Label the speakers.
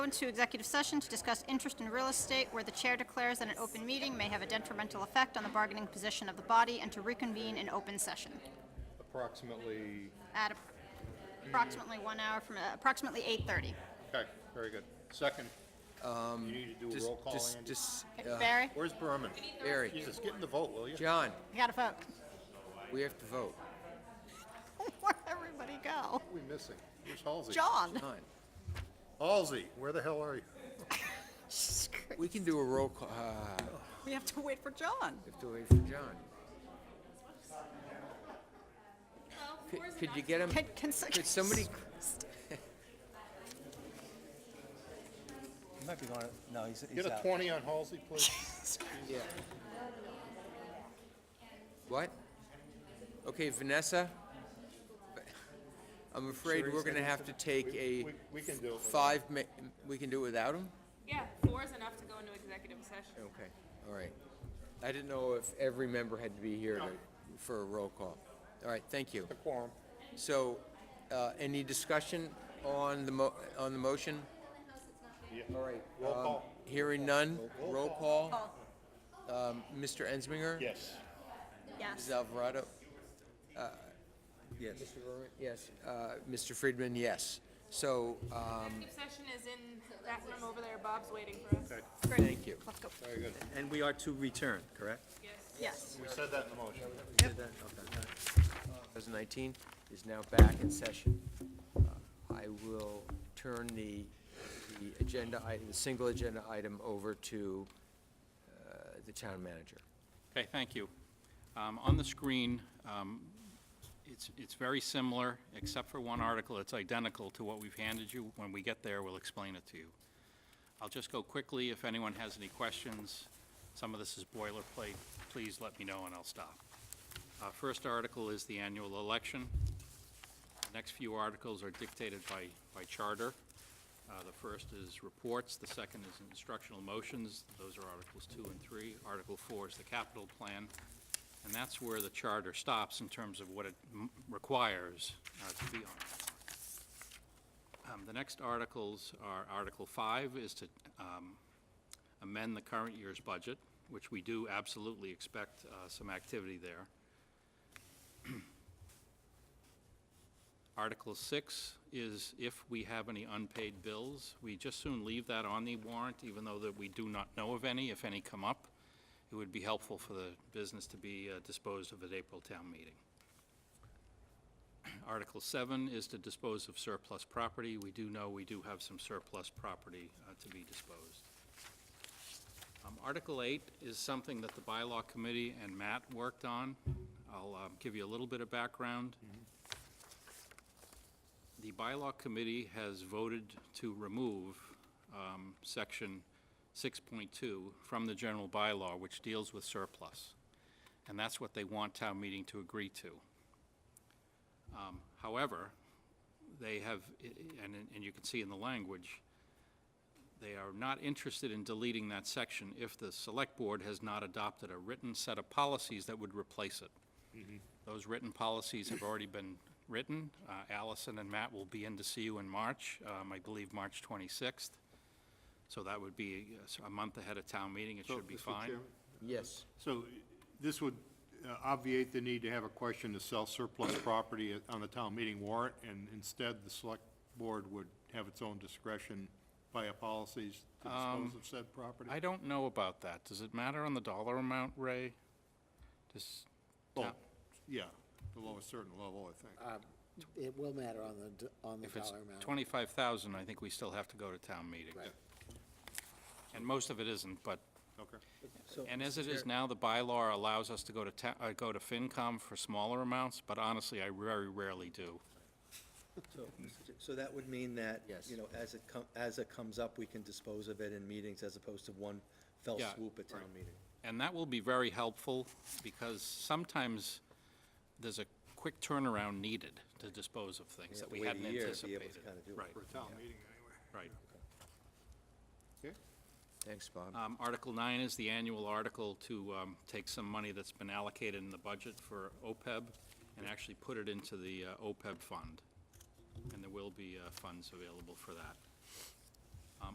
Speaker 1: Go into executive session to discuss interest in real estate where the chair declares that an open meeting may have a detrimental effect on the bargaining position of the body and to reconvene in open session
Speaker 2: approximately,
Speaker 1: at approximately one hour from, uh, approximately 8:30.
Speaker 2: okay, very good. Second, you need to do a
Speaker 3: Um, Just,
Speaker 2: roll call,
Speaker 3: just,
Speaker 2: Andy.
Speaker 3: just,
Speaker 1: Okay,
Speaker 3: uh,
Speaker 1: Barry,
Speaker 2: Where's Berman?
Speaker 3: Barry,
Speaker 2: Jesus, get in the vote, will you?
Speaker 3: John,
Speaker 1: you got a vote.
Speaker 3: we have to vote.
Speaker 1: Where'd everybody go?
Speaker 2: Who are we missing? Where's Halsey?
Speaker 1: John.
Speaker 3: John,
Speaker 2: Halsey, where the hell are you?
Speaker 3: we can do a roll call, uh,
Speaker 1: We have to wait for John.
Speaker 3: we have to wait for John. Could- Could you get him,
Speaker 1: Can, can, s-
Speaker 3: could somebody,
Speaker 4: He might be going. to- No, he's, he's
Speaker 2: Get a
Speaker 4: out.
Speaker 2: twenty on Halsey, please.
Speaker 3: yeah. What? Okay, Vanessa? I'm afraid we're gonna have to take
Speaker 2: We-
Speaker 3: a
Speaker 2: we- We can do it.
Speaker 3: five mi- we can do it without him?
Speaker 5: Yeah, four is enough to go into executive session.
Speaker 3: Okay, all right. I didn't know if every member had to be here to- for a roll call. All right, thank you.
Speaker 2: The quorum.
Speaker 3: So, uh, any discussion on the mo, on the motion?
Speaker 2: Yeah.
Speaker 3: All right.
Speaker 2: Roll
Speaker 3: um,
Speaker 2: call.
Speaker 3: Hearing none,
Speaker 2: Roll
Speaker 3: roll
Speaker 2: call.
Speaker 3: call. Um, Mr. Ensminger?
Speaker 2: Yes.
Speaker 1: Yes.
Speaker 3: Ms. Alvarado? Yes. Mr. Berman? Yes. Uh, Mr. Friedman, yes. So, um,
Speaker 5: Executive session is in that room over there. Bob's waiting for us.
Speaker 3: thank you.
Speaker 1: Let's go.
Speaker 2: Very good.
Speaker 4: And we are to return, correct?
Speaker 5: Yes.
Speaker 1: Yes.
Speaker 2: We said that in the motion.
Speaker 4: We did that? Okay.
Speaker 3: 2019 is now back in session. Uh, I will turn the, the agenda, item- the single agenda item over to uh, the town manager.
Speaker 6: Okay, thank you. Um, On the screen, um, it's, it's very similar, except for one article, it's identical to what we've handed you. When we get there, we'll explain it to you. I'll just go quickly, if anyone has any questions, some of this is boilerplate, please let me know and I'll stop. Uh, First article is the annual election. The Next few articles are dictated by, by charter. Uh, The first is reports, the second is instructional motions, those are Articles 2 and 3. Article 4 is the capital plan, and that's where the charter stops in terms of what it m- requires uh, to be on. Um, The next articles are, Article 5 is to um, amend the current year's budget, which we do absolutely expect uh, some activity there. Article six is if we have any unpaid bills, we just soon leave that on the warrant, even though that we do not know of any, if any come up. It would be helpful for the business to be uh, disposed of at April town meeting. Article seven is to dispose of surplus property. We do know we do have some surplus property uh, to be disposed. Um, Article 8 is something that the bylaw committee and Matt worked on. I'll um, give you a little bit of background. The bylaw committee has voted to remove um, section 6.2 from the general bylaw, which deals with surplus. And that's what they want town meeting to agree to. Um, However, they have, i- i- and, and you can see in the language, they are not interested in deleting that section if the select board has not adopted a written set of policies that would replace it. Those written policies have already been written. Uh, Allison and Matt will be in to see you in March, um, I believe March 26th. So that would be uh, s- a month ahead of town meeting, it should be fine.
Speaker 3: Yes.
Speaker 2: So this would uh, obviate the need to have a question to sell surplus property on the town meeting warrant, and instead, the select board would have its own discretion via policies to dispose of said property?
Speaker 6: Um, I don't know about that. Does it matter on the dollar amount, Ray? Does,
Speaker 2: Oh, Yeah, below a certain level, I think.
Speaker 7: It will matter on the, d- on the
Speaker 6: if it's
Speaker 7: dollar amount.
Speaker 6: 25,000, I think we still have to go to town meeting. And most of it isn't, but,
Speaker 2: Okay.
Speaker 6: and as it is now, the bylaw allows us to go to ta, uh, go to FinCom for smaller amounts, but honestly, I very rarely do.
Speaker 4: So, Mr. Chair, so that would mean that,
Speaker 3: Yes.
Speaker 4: you know, as it come, as it comes up, we can dispose of it in meetings as opposed to one fell
Speaker 6: Yeah,
Speaker 4: swoop at town meeting.
Speaker 6: And that will be very helpful, because sometimes there's a quick turnaround needed to dispose of things that
Speaker 4: have
Speaker 6: we
Speaker 4: to wait a
Speaker 6: hadn't
Speaker 4: year
Speaker 6: anticipated.
Speaker 4: to be able to kinda do it.
Speaker 6: Right,
Speaker 2: For a town meeting, anyway.
Speaker 6: right.
Speaker 2: Okay?
Speaker 3: Thanks, Bob.
Speaker 6: Um, Article nine is the annual article to um, take some money that's been allocated in the budget for OPEB and E actually put it into the uh, OPEB fund. And there will be uh, funds available for that.